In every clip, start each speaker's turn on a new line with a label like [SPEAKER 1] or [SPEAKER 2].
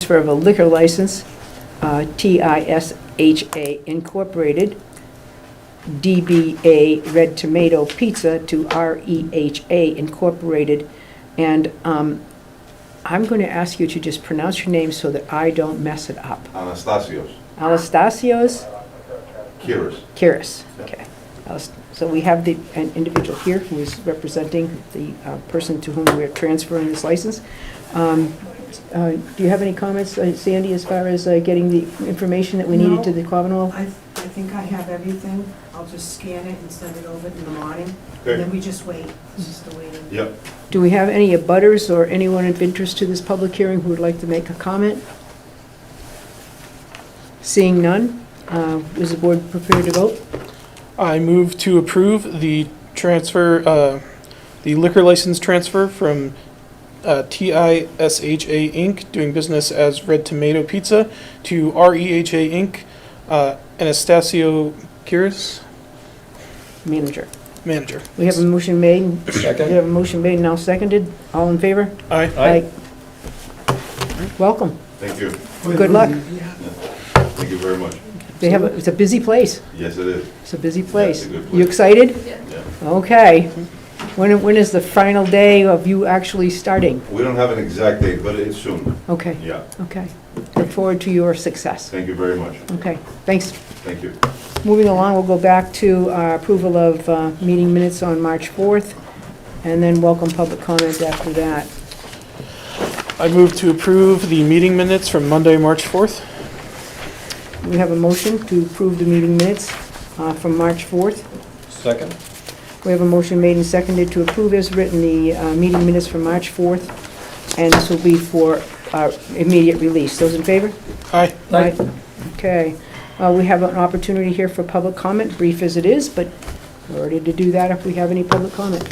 [SPEAKER 1] transfer of a liquor license, uh, TISHA Incorporated, DBA Red Tomato Pizza to REHA Incorporated. And um, I'm going to ask you to just pronounce your name so that I don't mess it up.
[SPEAKER 2] Anastasios,
[SPEAKER 1] Anastasios
[SPEAKER 2] Kiris.
[SPEAKER 1] Kiris, okay. Alas- So we have the, an individual here who is representing the uh, person to whom we're transferring this license. Um, uh, Do you have any comments, uh, Sandy, as far as uh, getting the information that we needed to
[SPEAKER 3] No.
[SPEAKER 1] the Commonwealth?
[SPEAKER 3] I, I think I have everything. I'll just scan it and send it over in the morning. And
[SPEAKER 2] Okay.
[SPEAKER 3] then we just wait. It's just the waiting.
[SPEAKER 2] Yep.
[SPEAKER 1] Do we have any abutters or anyone of interest to this public hearing who would like to make a comment? Seeing none, uh, is the board prepared to vote?
[SPEAKER 4] I move to approve the transfer, uh, the liquor license transfer from uh, TISHA Inc., doing business as Red Tomato Pizza, to REHA Inc., uh, Anastasio Kiris,
[SPEAKER 1] Manager.
[SPEAKER 4] manager.
[SPEAKER 1] We have a motion made. We have a motion made, now seconded. All in favor?
[SPEAKER 4] Aye.
[SPEAKER 1] Aye. Welcome.
[SPEAKER 2] Thank you.
[SPEAKER 1] Good luck.
[SPEAKER 2] Thank you very much.
[SPEAKER 1] They have, a- it's a busy place.
[SPEAKER 2] Yes, it is.
[SPEAKER 1] It's a busy place.
[SPEAKER 2] it's a good
[SPEAKER 1] You
[SPEAKER 2] place.
[SPEAKER 1] excited?
[SPEAKER 2] Yeah.
[SPEAKER 1] Okay. When, when is the final day of you actually starting?
[SPEAKER 2] We don't have an exact date, but it's soon.
[SPEAKER 1] Okay,
[SPEAKER 2] Yeah.
[SPEAKER 1] okay. Look forward to your success.
[SPEAKER 2] Thank you very much.
[SPEAKER 1] Okay, thanks.
[SPEAKER 2] Thank you.
[SPEAKER 1] Moving along, we'll go back to uh, approval of uh, meeting minutes on March 4th, and then welcome public comment after that.
[SPEAKER 4] I move to approve the meeting minutes from Monday, March 4th.
[SPEAKER 1] We have a motion to approve the meeting minutes uh, from March 4th.
[SPEAKER 5] Second?
[SPEAKER 1] We have a motion made and seconded to approve as written the uh, meeting minutes for March 4th, and this will be for uh, immediate release. Those in favor?
[SPEAKER 4] Aye.
[SPEAKER 5] Aye.
[SPEAKER 1] Okay. Uh, We have an opportunity here for public comment, brief as it is, but we're ready to do that if we have any public comment.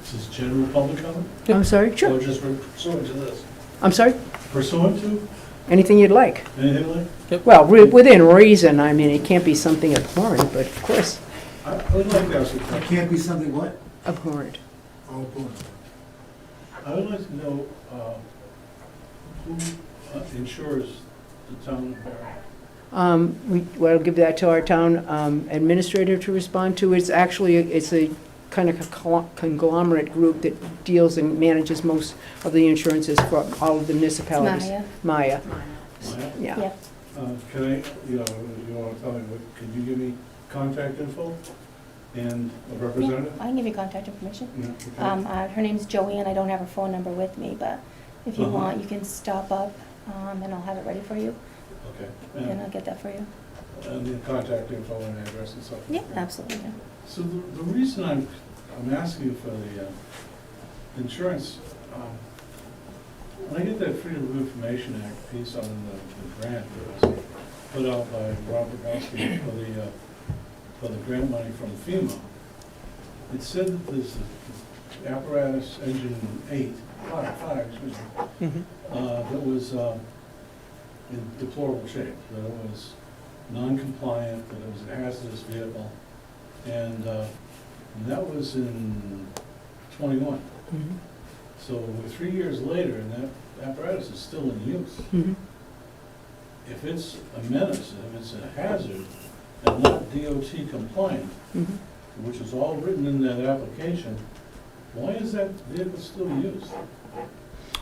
[SPEAKER 6] This is general public comment?
[SPEAKER 1] I'm sorry? Sure.
[SPEAKER 6] Or just pursuant to this?
[SPEAKER 1] I'm sorry?
[SPEAKER 6] Pursuant to
[SPEAKER 1] Anything you'd like.
[SPEAKER 6] anything like?
[SPEAKER 1] Well, re- within reason, I mean, it can't be something abhorrent, but of course.
[SPEAKER 6] I I would like to ask a question.
[SPEAKER 7] Can't be something what?
[SPEAKER 1] Abhorrent.
[SPEAKER 7] Oh, boy.
[SPEAKER 6] I would like to know uh, who uh, insures the town of Barry?
[SPEAKER 1] Um, We, well, I'll give that to our town um, administrator to respond to. It's actually, it's a kind of co- conglomerate group that deals and manages most of the insurances for all of the municipalities. Maya.
[SPEAKER 8] Maya.
[SPEAKER 6] Maya?
[SPEAKER 1] yeah.
[SPEAKER 8] Yep.
[SPEAKER 6] Uh, Can I, you know, you want to tell me, what- could you give me contact info and a
[SPEAKER 8] Yeah,
[SPEAKER 6] representative?
[SPEAKER 8] I can give you contact information.
[SPEAKER 6] Yeah, okay.
[SPEAKER 8] Um, uh, her name's Joanne, I don't have her phone number with me, but if you
[SPEAKER 6] Uh-huh.
[SPEAKER 8] want, you can stop up, um, and I'll have it ready for you,
[SPEAKER 6] Okay.
[SPEAKER 8] and
[SPEAKER 6] And-
[SPEAKER 8] I'll get that for you.
[SPEAKER 6] And the contact info and address and so forth.
[SPEAKER 8] Yeah, absolutely, yeah.
[SPEAKER 6] So the, the reason I'm, I'm asking you for the uh, insurance, um, when I get that Freedom of Information Act piece on the the grant that was put out by Robert Goski for the, uh, for the grant money from FEMA, it said that this apparatus engine eight, five, five, excuse me,
[SPEAKER 4] Mhm.
[SPEAKER 6] uh, that was um, in deplorable shape, that it was non-compliant, that it was a hazardous vehicle, and uh, that was in '21.
[SPEAKER 1] Mhm.
[SPEAKER 6] So we're three years later, and that apparatus is still in use.
[SPEAKER 1] Mhm.
[SPEAKER 6] If it's a menace, if it's a hazard, and not DOT compliant,
[SPEAKER 1] Mhm.
[SPEAKER 6] which is all written in that application, why is that vehicle still used?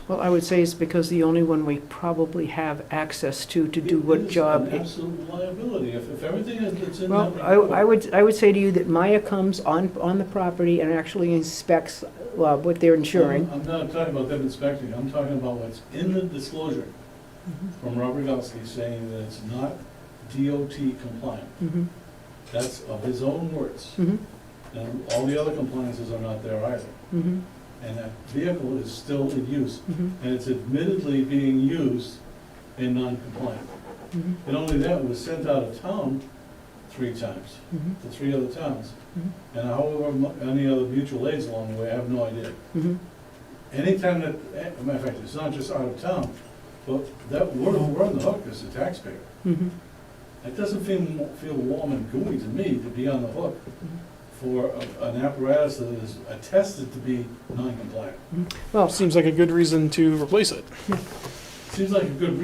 [SPEAKER 1] Well, I would say it's because the only one we probably have access to, to do what job.
[SPEAKER 6] It
[SPEAKER 1] it-
[SPEAKER 6] is an absolute liability, if, if everything is- that's in that
[SPEAKER 1] Well, I,
[SPEAKER 6] report-
[SPEAKER 1] I would, I would say to you that Maya comes on, on the property and actually inspects uh, what they're insuring.
[SPEAKER 6] I'm not talking about them inspecting, I'm talking about what's in the disclosure from Robert Gauski saying that it's not DOT compliant.
[SPEAKER 1] Mhm.
[SPEAKER 6] That's of his own words.
[SPEAKER 1] Mhm.
[SPEAKER 6] And all the other compliances are not there either.
[SPEAKER 1] Mhm.
[SPEAKER 6] And that vehicle is still in use,
[SPEAKER 1] Mhm.
[SPEAKER 6] and it's admittedly being used in non-compliant.
[SPEAKER 1] Mhm.
[SPEAKER 6] And only that, it was sent out of town three times,
[SPEAKER 1] Mhm.
[SPEAKER 6] to three other towns.
[SPEAKER 1] Mhm.
[SPEAKER 6] And however, mu- any other mutual aids along the way, I have no idea.
[SPEAKER 1] Mhm.
[SPEAKER 6] Anytime that, eh, as a matter of fact, it's not just out of town, but that, we're, we're on the hook as a taxpayer.
[SPEAKER 1] Mhm.
[SPEAKER 6] It doesn't feel, feel warm and gooey to me to be on the hook for a- an apparatus that is attested to be non-compliant.
[SPEAKER 1] Well,
[SPEAKER 4] Seems like a good reason to replace it.
[SPEAKER 6] Seems like a good